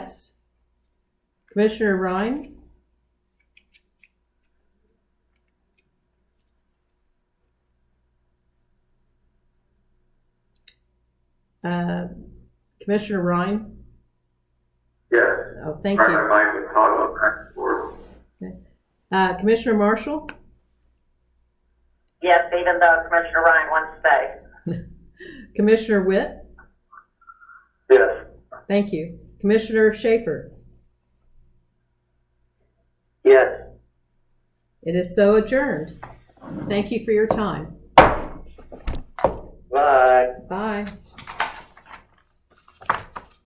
Commissioner Rhine? Uh, Commissioner Rhine? Yes, Oh, thank my, my you. mind was toggled back and forth. Uh, Commissioner Marshall? Yes, even though Commissioner Ryan wants to stay. Commissioner Witt? Yes, Thank you. Commissioner Schaefer? yes. It is so adjourned. Thank you for your time. Bye. Bye.